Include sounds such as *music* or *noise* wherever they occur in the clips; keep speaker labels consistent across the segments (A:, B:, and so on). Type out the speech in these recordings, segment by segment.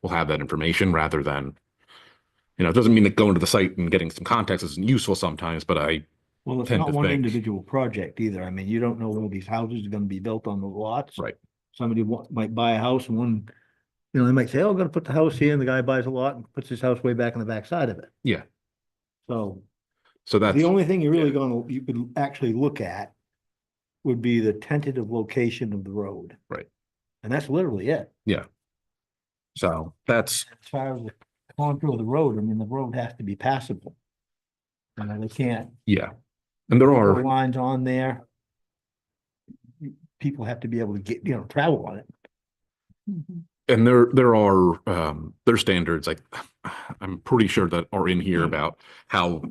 A: we'll have that information rather than, you know, it doesn't mean that going to the site and getting some context isn't useful sometimes, but I,
B: Well, it's
A: tend
B: not
A: to
B: one
A: think-
B: individual project either. I mean, you don't know where these houses are gonna be built on the lots.
A: Right.
B: Somebody wa- might buy a house and one, you know, they might say, oh, I'm gonna put the house here, and the guy buys a lot and puts his house way back on the backside of it.
A: Yeah.
B: So
A: so that's,
B: the only thing you're really
A: yeah.
B: gonna, you could actually look at would be the tentative location of the road.
A: Right.
B: And that's literally it.
A: so that's,
B: As far as the contour of the road, I mean, the road has to be passable. You know, they can't
A: yeah. And there
B: the
A: are,
B: lines on there. People have to be able to get, you know, travel on it.
C: Mm-hmm.
A: and there, there are, um, there are standards, like, I'm pretty sure that are in
B: Mm-hmm.
A: here about how,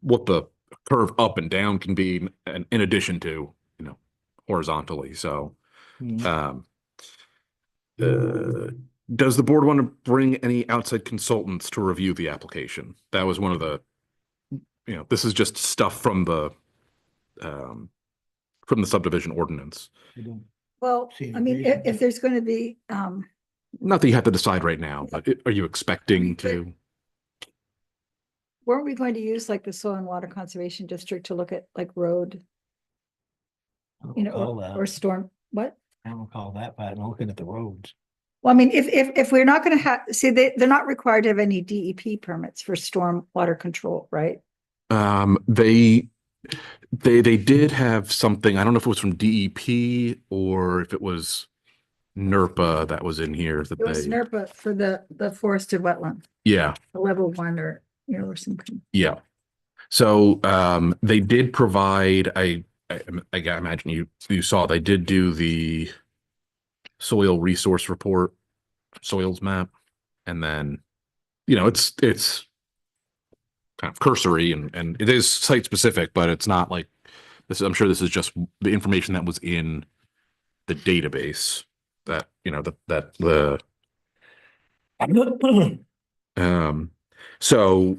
A: what the curve up and down can be and in addition to, you know, horizontally, so, um, uh, does the board want to bring any outside consultants to review the application? That was one of the, you know, this is just stuff from the, um, from the subdivision ordinance.
B: I don't-
C: Well,
B: See,
C: I mean,
B: agreed.
C: if, if there's gonna be, um,
A: Not that you have to decide right now, but i- are you expecting to?
C: weren't we going to use like the soil and water conservation district to look at like road,
B: I don't
C: you know,
B: recall
C: or-
B: that.
C: or storm, what?
B: I don't recall that, but I'm looking at the
C: *clears throat*
B: roads.
C: Well, I mean, if, if, if we're not gonna have, see, they, they're not required to have any DEP permits for storm water control, right?
A: Um, they, they, they did have something, I don't know if it was from DEP or if it was E NERPA that was in here that
C: It was E
A: they,
C: NERPA for the, the forested wetland,
A: yeah.
C: the level one or, you know, or something.
A: Yeah. So um they did provide, I I I ga- imagine you you saw, they did do the soil resource report, soils map, and then, you know, it's it's kind of cursory and and it is site specific, but it's not like this, I'm sure this is just the information that was in the database that, you know, that that the um, so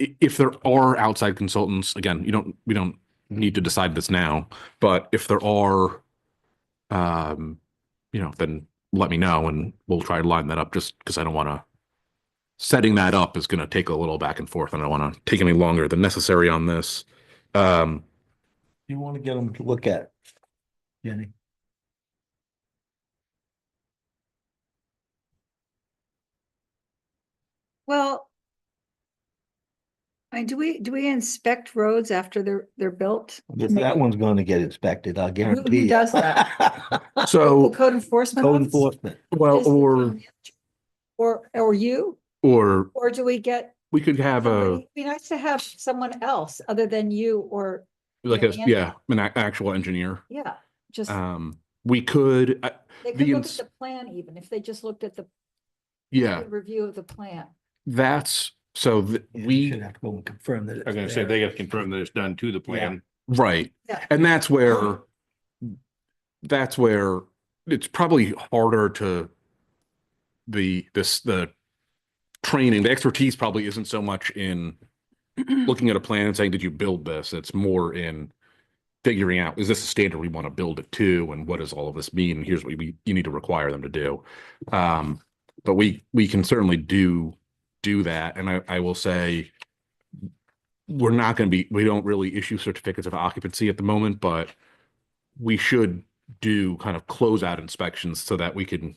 A: i- if there are outside consultants, again, you don't, we don't need to decide this now, but if there are, um, you know, then let me know and we'll try to line that up just because I don't want to. Setting that up is going to take a little back and forth and I don't want to take any longer than necessary on this. Um,
B: You want to get them to look at. Jenny,
C: Well. I, mean, do we, do we inspect roads after they're, they're built?
B: This- that one's gonna get inspected, I'll guarantee. you. *laughs*
C: does The
A: so,
C: Code enforcement?
B: Code
C: office?
B: enforcement.
A: well,
C: Does the
A: or,
C: town Or, or you,
A: or
C: or do we get,
A: we could have a,
C: somebody- it'd be nice to have someone else other than you or,
A: like a,
C: Yeah.
A: yeah, an a- actual engineer.
C: yeah, just,
A: Um, we could, I-
C: they
A: the
C: could look at
A: ins-
C: the plan even, if they just looked at the
A: yeah,
C: review of the plan.
A: that's, so th-
B: Yeah, you
A: we.
B: Should have to go and confirm that.
D: I was gonna say, they gotta confirm that it's done to the plan.
A: Right.
C: Yeah.
A: And that's where, that's where it's probably harder to the, this, the training, the expertise probably isn't so much in looking at a plan and saying, did you build this? It's more in figuring out, is this a standard we want to build it to? And what does all of this mean? And here's what we, you need to require them to do. Um, but we, we can certainly do, do that. And I, I will say, we're not going to be, we don't really issue certificates of occupancy at the moment, but we should do kind of closeout inspections so that we can,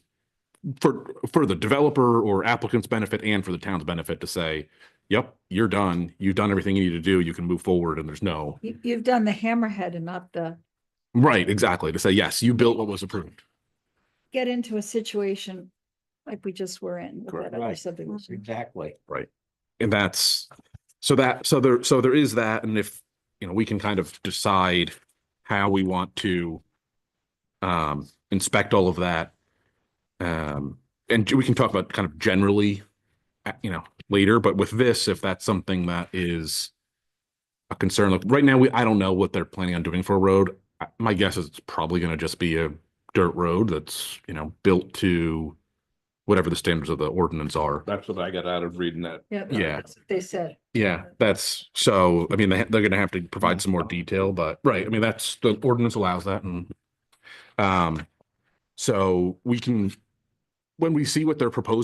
A: for, for the developer or applicant's benefit and for the town's benefit to say, yep, you're done. You've done everything you need to do. You can move forward and there's no,
C: You, you've done the hammerhead and not the,
A: right, exactly, to say, yes, you built what was approved.
C: get into a situation like we just were in with
A: Correct.
C: that other
B: Right.
C: subdivision.
B: Exactly.
A: And that's, so that, so there, so there is that, and if, you know, we can kind of decide how we want to um, inspect all of that. Um, and we can talk about kind of generally, uh, you know, later, but with this, if that's something that is a concern, like right now, we, I don't know what they're planning on doing for a road. I- My guess is it's probably gonna just be a dirt road that's, you know, built to whatever the standards of the ordinance are.
D: That's what I got out of reading that.
C: Yeah.
A: Yeah.
C: that's what They said,
A: Yeah, that's, so, I mean, they, they're gonna have to provide some more detail, but, right, I mean, that's, the ordinance allows that and, um, so we can when we see what they're proposing